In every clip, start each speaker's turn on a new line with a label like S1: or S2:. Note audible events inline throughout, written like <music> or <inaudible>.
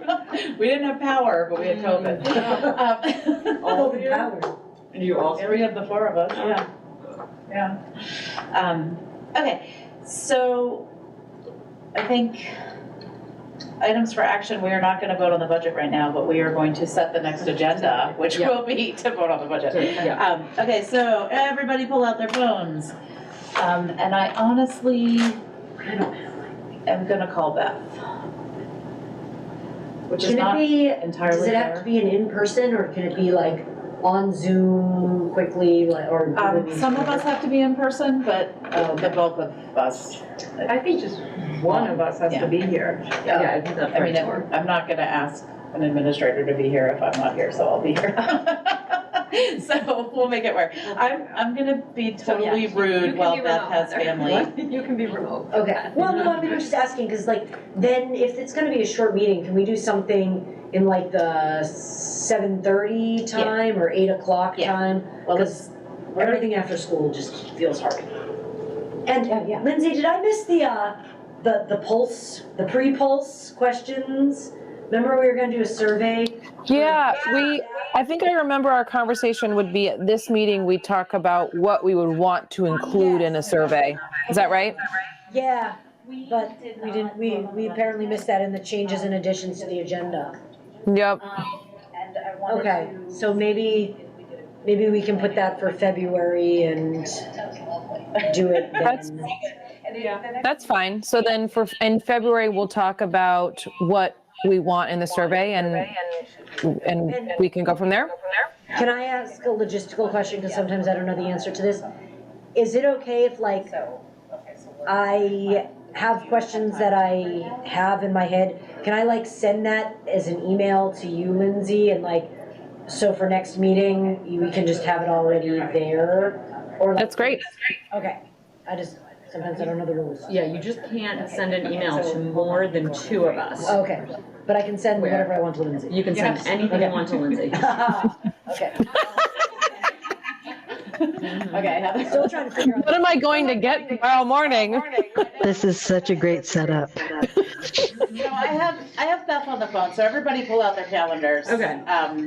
S1: <laughs> We didn't have power, but we had
S2: <laughs>
S1: COVID.
S2: All
S1: Um,
S2: the
S1: <laughs>
S2: power.
S1: And you all <laughs> three of the four of us, yeah. Yeah. Um, okay, so I think items for action, we are not gonna vote on the budget right now, but we are going to set the next agenda, which
S2: Yeah.
S1: will be <laughs> to vote on the budget.
S2: Yeah.
S1: Um, okay, so everybody pull out their phones. Um, and I honestly am gonna call Beth. Which is
S2: Can it
S1: not
S2: be, does
S1: entirely
S2: it have to
S1: fair.
S2: be an in-person or can it be like on Zoom quickly like, or?
S1: Um, some of us have to be in person, but uh, the bulk of us.
S3: I think just one of us has
S1: Yeah.
S3: to
S2: <laughs>
S3: be here.
S1: Yeah,
S2: I think that's
S1: I mean, I'm I'm not gonna ask an administrator to be here if I'm not here, so I'll be here. <laughs> So we'll make it work. I'm, I'm gonna be
S4: So, yeah,
S1: totally
S4: you- you
S1: rude
S4: can
S1: while
S4: be
S1: Beth
S4: remote.
S1: has family.
S3: <laughs>
S4: You can be remote.
S2: Okay, well, no, I mean, I'm just asking, because like, then if it's gonna be a short meeting, can we do something in like the seven thirty time or eight o'clock
S1: Yeah.
S2: time?
S1: Well,
S2: Because everything after school just feels hard.
S4: Yeah, yeah.
S2: And Lindsay, did I miss the, uh, the, the pulse, the pre-pulse questions? Remember we were gonna do a survey?
S5: Yeah, we, I think I remember our conversation would be at this meeting, we talk about what we would want to include in a survey. Is that right?
S2: Yeah, but we didn't, we, we apparently missed that in the changes and additions to the agenda.
S5: Yep.
S2: Okay, so maybe, maybe we can put that for February <laughs> and do it
S5: That's-
S2: then.
S4: Yeah.
S5: That's fine. So then for, in February, we'll talk about what we want in the survey and, and we can go from there.
S2: Can I ask a logistical question, because sometimes I don't know the answer to this? Is it okay if like, I have questions that I have in my head, can I like send that as an email to you, Lindsay, and like, so for next meeting, you- we can just have it already there? Or like-
S5: That's great.
S2: Okay, I just, sometimes I don't know the rules.
S4: Yeah, you just can't send an email to more than two of us.
S2: Okay, but I can send
S4: Where?
S2: whatever I want to
S4: <laughs>
S2: Lindsay. <laughs>
S4: You can send anything you want to Lindsay.
S2: Okay,
S1: Okay, Heather.
S2: still trying to figure out.
S5: What am I going to get tomorrow morning?
S6: This is such a great setup.
S1: <laughs> No, I have, I have Beth on the phone, so everybody pull out their calendars.
S4: Okay.
S1: Um,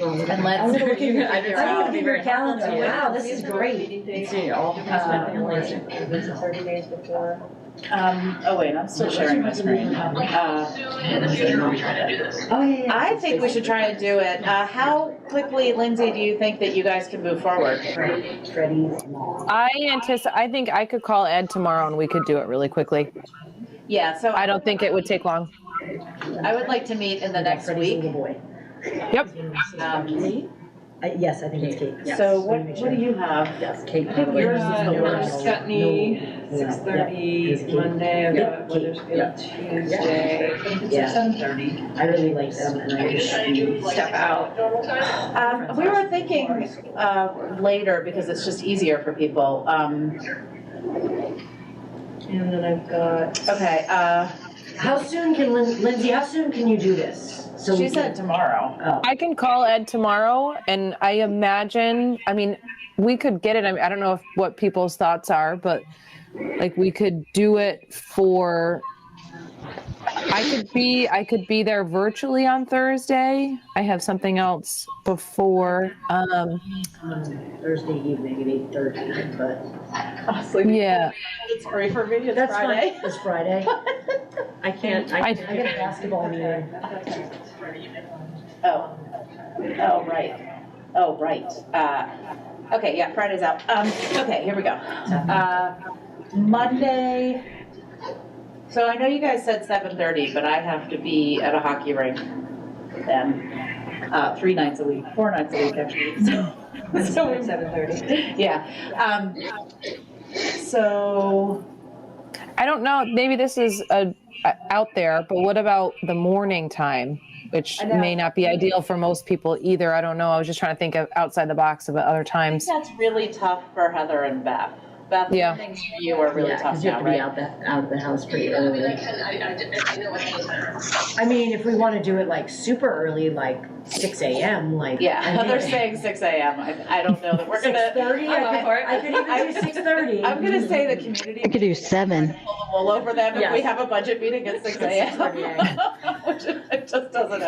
S4: And
S1: let's-
S4: I'm gonna look at your- I
S1: I'm
S4: just-
S1: gonna
S2: I
S4: I'll
S2: need to
S4: be
S2: keep your
S4: very helpful
S2: calendar,
S4: to you.
S2: wow, this is great.
S4: It's you, all of us have been listening.
S2: Thirty days before.
S1: um, oh wait, I'm still sharing my screen. Uh,
S2: Oh, yeah, yeah.
S1: I think we should try and do it. Uh, how quickly, Lindsay, do you think that you guys can move forward?
S2: Freddie's mom.
S5: I anticipate, I think I could call Ed tomorrow and we could do it really quickly.
S1: Yeah, so
S5: I don't think it would take long.
S1: I would like to meet in the next
S2: Freddie's
S1: week.
S2: little boy.
S5: Yep.
S1: Um,
S2: Uh, yes, I think it's Kate.
S4: Yes.
S1: So what, what do you have?
S2: Yes, Kate.
S3: I think yours is
S2: Uh,
S3: yours.
S2: Mark Scutney,
S3: No.
S2: six thirty,
S3: Yeah. Monday, I've
S2: Yeah.
S3: got Weathersfield Tuesday.
S2: Yeah.
S1: Seven thirty.
S2: I really like them and I wish I.
S3: Step out.
S1: Um, we were thinking, uh, later, because it's just easier for people. Um,
S3: And then I've got,
S1: okay, uh,
S2: How soon can Lin- Lindsay, how soon can you do this? So
S1: she
S2: we
S1: said
S2: can-
S1: tomorrow.
S2: Oh,
S5: I can call Ed tomorrow, and I imagine, I mean, we could get it. I, mean, I don't know if, what people's thoughts are, but like we could do it for. I could be I could be there virtually on Thursday. I have something else before. Um,
S2: um, Thursday evening at eight thirty, but.
S1: Honestly,
S5: yeah,
S1: it's free for me, it's
S2: That's fine, it's
S1: <laughs>
S2: Friday.
S4: I can't, I
S5: I-
S2: I got a
S4: can't.
S2: basketball meeting.
S1: Oh, oh, right, oh, right. Uh, okay, yeah, Friday's out. Um, okay, here we go. Uh, Monday, so I know you guys said seven thirty, but I have to be at a hockey rink then, uh, three nights a week, four nights a week, actually, so. so-
S3: seven thirty.
S1: Yeah, um, so,
S5: I don't know. Maybe this is a, a- out there, but what about the morning time, which
S1: I know.
S5: may not be ideal for most people either. I don't know. I was just trying to think of outside the box of other
S1: I
S5: times.
S1: think that's really tough for Heather and Beth. Beth,
S5: Yeah.
S1: things for you are really
S4: Yeah,
S1: tough
S4: 'cause you have
S1: now,
S4: to be
S1: right?
S4: out the, out of the house pretty early.
S2: I mean, if we wanna do it like super early, like six AM, like.
S1: Yeah,
S2: I mean-
S1: <laughs> Heather's saying six AM. I, I don't know that we're
S2: Six
S1: gonna,
S2: thirty,
S1: I'm up for it.
S2: I could, I could even do six thirty.
S1: I'm gonna say the community.
S6: I could do seven.
S1: We'll over them if we
S4: Yes.
S1: have a budget meeting at six AM. <laughs> Which it just doesn't